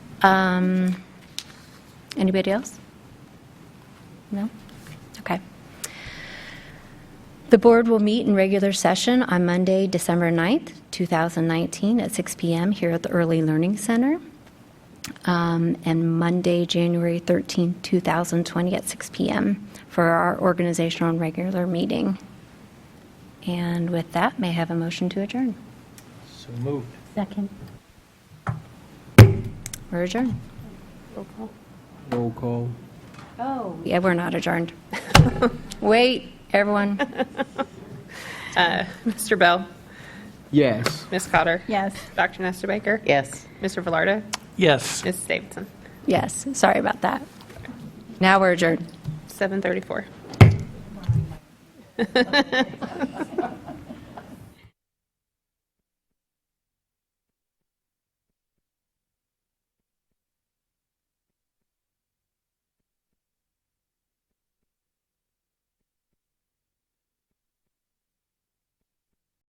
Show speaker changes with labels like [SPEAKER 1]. [SPEAKER 1] Um, Anybody else? No? Okay. The board will meet in regular session on Monday, December 9th, 2019, at 6 PM here at the Early Learning Center, Um, and Monday, January 13th, 2020, at 6 PM for our organizational and regular meeting. And with that, may I have a motion to adjourn?
[SPEAKER 2] So moved.
[SPEAKER 3] Second.
[SPEAKER 1] We're adjourned.
[SPEAKER 3] Roll call.
[SPEAKER 2] Roll call.
[SPEAKER 3] Oh.
[SPEAKER 1] Yeah, we're not adjourned. Wait, everyone.
[SPEAKER 4] Mr. Bell,
[SPEAKER 2] Yes.
[SPEAKER 4] Ms. Cotter,
[SPEAKER 3] Yes.
[SPEAKER 4] Dr. Nestor Baker,
[SPEAKER 5] Yes.
[SPEAKER 4] Mr. Velardo,
[SPEAKER 6] Yes.
[SPEAKER 4] Ms. Davidson,
[SPEAKER 1] Yes, sorry about that. Now we're adjourned.
[SPEAKER 4] 734.